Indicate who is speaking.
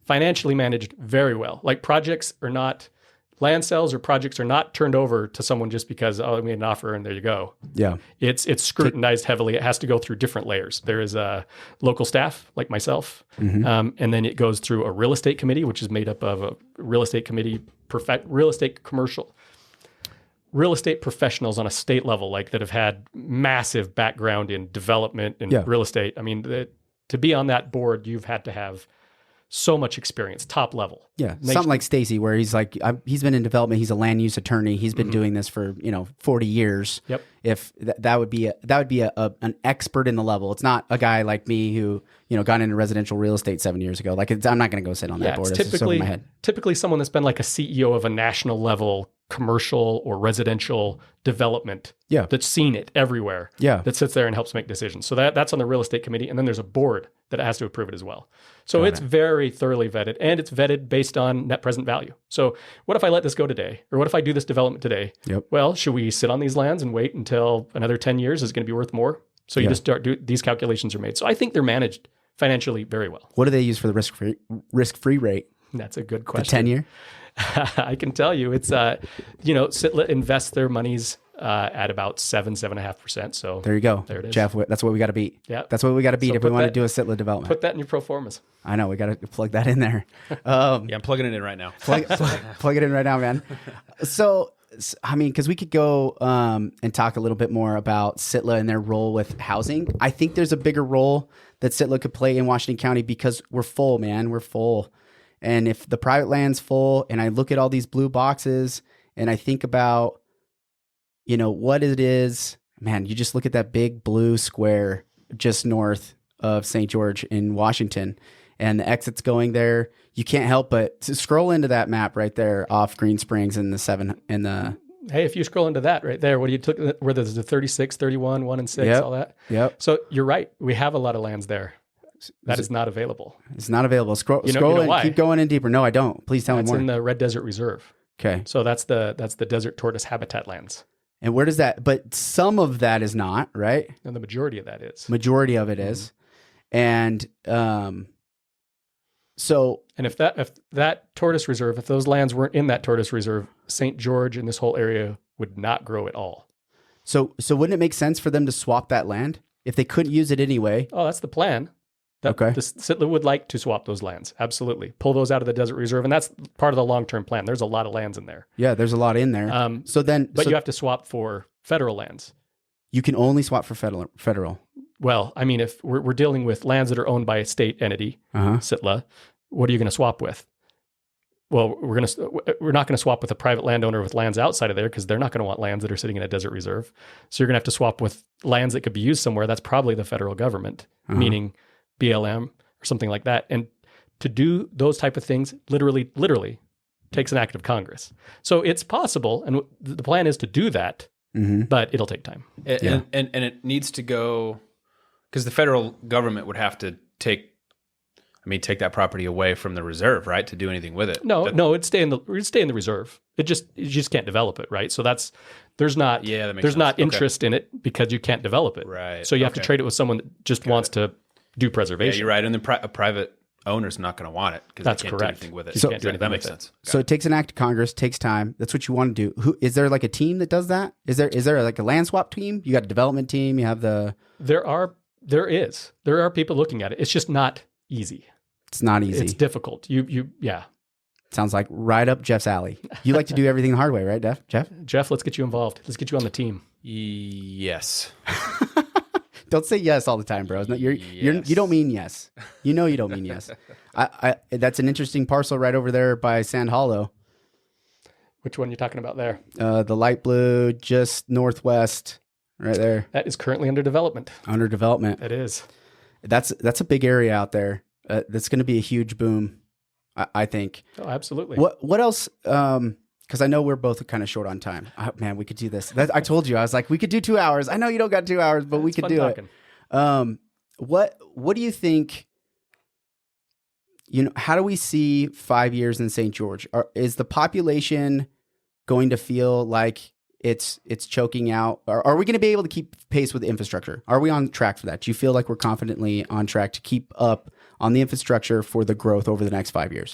Speaker 1: financially managed very well. Like projects are not land sales or projects are not turned over to someone just because oh, I made an offer and there you go.
Speaker 2: Yeah.
Speaker 1: It's it's scrutinized heavily. It has to go through different layers. There is a local staff like myself, um, and then it goes through a real estate committee, which is made up of a real estate committee, perfect real estate commercial, real estate professionals on a state level, like that have had massive background in development and
Speaker 2: Yeah.
Speaker 1: real estate. I mean, the, to be on that board, you've had to have so much experience, top level.
Speaker 2: Yeah,
Speaker 1: Makes-
Speaker 2: something like Stacy, where he's like, i he's been in development. He's a land use attorney. He's been doing this for you know forty years.
Speaker 1: Mm-hmm. Yep.
Speaker 2: If th- that would be a, that would be a, a, an expert in the level. It's not a guy like me who you know got into residential real estate seven years ago. Like it's, I'm not going to go sit on
Speaker 1: yeah,
Speaker 2: that board.
Speaker 1: it's
Speaker 2: It's just over
Speaker 1: typically
Speaker 2: my head.
Speaker 1: typically someone that's been like a CEO of a national level commercial or residential development.
Speaker 2: Yeah.
Speaker 1: that's seen it everywhere.
Speaker 2: Yeah.
Speaker 1: that sits there and helps make decisions. So that that's on the real estate committee, and then there's a board that has to approve it as well. So it's very thoroughly vetted, and it's vetted based on net present value. So what if I let this go today, or what if I do this development today?
Speaker 2: Yep.
Speaker 1: Well, should we sit on these lands and wait until another ten years is going to be worth more? So you just start do these calculations are made. So I think they're managed financially very well.
Speaker 2: What do they use for the risk free risk free rate?
Speaker 1: That's a good question.
Speaker 2: Ten year.
Speaker 1: I can tell you, it's uh, you know, Sitla invest their monies uh, at about seven, seven and a half percent. So
Speaker 2: There you go.
Speaker 1: There it is.
Speaker 2: Jeff. wh- That's what we got to beat.
Speaker 1: Yeah.
Speaker 2: That's what we got to beat if we
Speaker 1: put
Speaker 2: want to
Speaker 1: that-
Speaker 2: do a sitla development.
Speaker 1: put that in your pro formas.
Speaker 2: I know we got to plug that in there. Um,
Speaker 3: Yeah, I'm plugging it in right now.
Speaker 2: plug, plug, plug it in right now, man. So, s- I mean, because we could go um, and talk a little bit more about Sitla and their role with housing. I think there's a bigger role that Sitla could play in Washington County because we're full, man. We're full. And if the private land's full, and I look at all these blue boxes and I think about, you know, what it is, man, you just look at that big blue square just north of St. George in Washington and the exit's going there. You can't help but to scroll into that map right there off Green Springs and the seven and the
Speaker 1: Hey, if you scroll into that right there, what do you took? Where there's the 36, 31, 1 and 6,
Speaker 2: Yep.
Speaker 1: all that.
Speaker 2: yep
Speaker 1: So you're right. We have a lot of lands there that is not available.
Speaker 2: it's not available. Scroll
Speaker 1: You know-
Speaker 2: scroll
Speaker 1: you know
Speaker 2: in,
Speaker 1: why?
Speaker 2: keep going in deeper. No, I don't. Please tell
Speaker 1: That's
Speaker 2: me
Speaker 1: in
Speaker 2: more.
Speaker 1: the Red Desert Reserve.
Speaker 2: okay,
Speaker 1: So that's the that's the desert tortoise habitat lands,
Speaker 2: and where does that? But some of that is not right.
Speaker 1: and the majority of that is.
Speaker 2: Majority of it is,
Speaker 1: Mm-hmm.
Speaker 2: and um, so
Speaker 1: And if that if that tortoise reserve, if those lands weren't in that tortoise reserve, St. George and this whole area would not grow at all.
Speaker 2: so so wouldn't it make sense for them to swap that land if they couldn't use it anyway?
Speaker 1: Oh, that's the plan. That
Speaker 2: Okay.
Speaker 1: The Sitla would like to swap those lands. Absolutely. Pull those out of the desert reserve. And that's part of the long term plan. There's a lot of lands in there.
Speaker 2: Yeah, there's a lot in there.
Speaker 1: Um,
Speaker 2: so then,
Speaker 1: but
Speaker 2: so
Speaker 1: you have to swap for federal lands.
Speaker 2: you can only swap for federal. Federal.
Speaker 1: Well, I mean, if we're, we're dealing with lands that are owned by a state entity,
Speaker 2: Uh huh.
Speaker 1: Sitla, what are you going to swap with? Well, we're going to we're not going to swap with a private landowner with lands outside of there because they're not going to want lands that are sitting in a desert reserve. So you're going to have to swap with lands that could be used somewhere. That's probably the federal government,
Speaker 2: Uh-huh.
Speaker 1: meaning BLM or something like that. And to do those type of things, literally, literally, takes an act of Congress. So it's possible, and w- the plan is to do that,
Speaker 2: Mm-hmm.
Speaker 1: but it'll take time.
Speaker 3: And,
Speaker 2: Yeah.
Speaker 3: and, and, and it needs to go because the federal government would have to take, I mean, take that property away from the reserve, right? To do anything with it.
Speaker 1: No,
Speaker 3: That-
Speaker 1: no, it'd stay in the it'd stay in the reserve. It just you just can't develop it, right? So that's there's not
Speaker 3: Yeah, that makes
Speaker 1: there's
Speaker 3: sense.
Speaker 1: not
Speaker 3: Okay.
Speaker 1: interest in it because you can't develop it.
Speaker 3: Right.
Speaker 1: So you have to
Speaker 3: Okay.
Speaker 1: trade it with someone that just wants to do
Speaker 3: Yeah,
Speaker 1: preservation.
Speaker 3: you're right. And then pri- a private owner's not going to want it because
Speaker 1: That's
Speaker 3: they can't
Speaker 1: correct.
Speaker 3: do anything with it.
Speaker 1: You
Speaker 2: So-
Speaker 1: can't do
Speaker 3: that
Speaker 1: anything
Speaker 3: makes
Speaker 1: with
Speaker 3: sense.
Speaker 2: So it takes an act of Congress, takes time. That's what you want to do. Who is there like a team that does that? Is there is there like a land swap team? You got a development team. You have the.
Speaker 1: There are there is there are people looking at it. It's just not easy.
Speaker 2: It's not easy.
Speaker 1: It's difficult. You you yeah.
Speaker 2: Sounds like right up Jeff's alley. You like to do everything the hard way, right, Jeff? Jeff,
Speaker 1: Jeff, let's get you involved. Let's get you on the team.
Speaker 3: Yes.
Speaker 2: don't say yes all the time, bro. No, You're, you're, you don't mean yes. You know you don't mean yes. I, I, that's an interesting parcel right over there by Sand Hollow,
Speaker 1: Which one are you talking about there?
Speaker 2: uh, the light blue, just northwest, right there,
Speaker 1: That is currently under development.
Speaker 2: under development.
Speaker 1: It is.
Speaker 2: That's that's a big area out there. Uh, that's going to be a huge boom, I, I think.
Speaker 1: Oh, absolutely.
Speaker 2: What what else? Um, because I know we're both kind of short on time. Oh, man, we could do this. That, I told you, I was like, we could do two hours. I know you don't got two hours, but we
Speaker 1: It's
Speaker 2: could
Speaker 1: fun
Speaker 2: do
Speaker 1: talking.
Speaker 2: it. Um, what what do you think? You know, how do we see five years in St. George? Are, is the population going to feel like it's it's choking out? Are, are we going to be able to keep pace with infrastructure? Are we on track for that? Do you feel like we're confidently on track to keep up on the infrastructure for the growth over the next five years.